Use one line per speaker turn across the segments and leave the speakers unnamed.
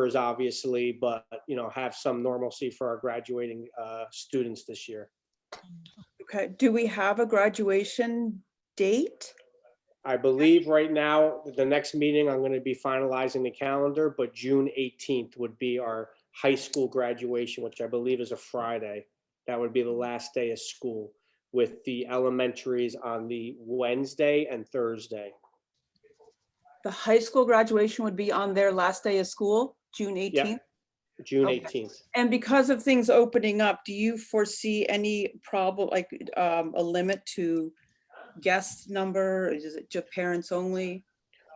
numbers, obviously, but, you know, have some normalcy for our graduating uh, students this year.
Okay, do we have a graduation date?
I believe right now, the next meeting, I'm going to be finalizing the calendar, but June 18th would be our high school graduation, which I believe is a Friday. That would be the last day of school with the elementaries on the Wednesday and Thursday.
The high school graduation would be on their last day of school, June 18th?
June
Okay.
18th.
And because of things opening up, do you foresee any problem, like um, a limit to guest number? Is it just parents only?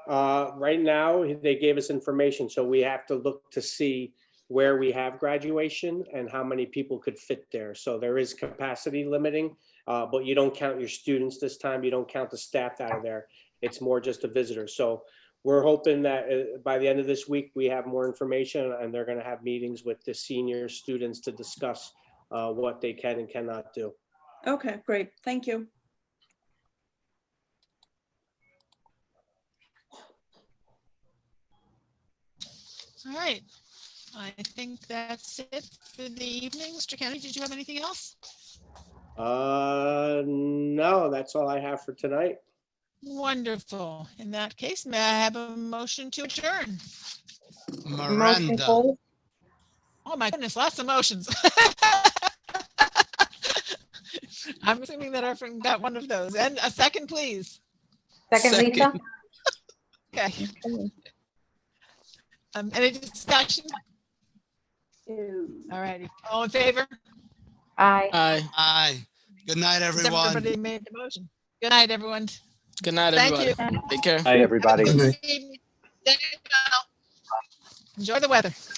Uh, Right now, they gave us information, so we have to look to see where we have graduation and how many people could fit there. So there is capacity limiting, uh, but you don't count your students this time. You don't count the staff out of there. It's more just a visitor. So we're hoping that uh, by the end of this week, we have more information and they're going to have meetings with the senior students to discuss uh, what they can and cannot do.
Okay, great, thank you.
All right. I think that's it for the evening. Mr. Kennedy, did you have anything else?
Uh, No, that's all I have for tonight.
Wonderful. In that case, may I have a motion to adjourn?
Motion
Miranda.
hold.
Oh my goodness, lots of motions. I'm assuming that our friend got one of those. And a second, please.
Second, Lisa?
Second.
Okay. Um, any discussion? All righty. All in favor?
Aye.
Aye.
Aye. Good night,
Since
everyone.
Everybody made the motion. Good night, everyone.
Good night,
Thank you.
everybody. Take care.
Hi, everybody.
uh, Enjoy the weather.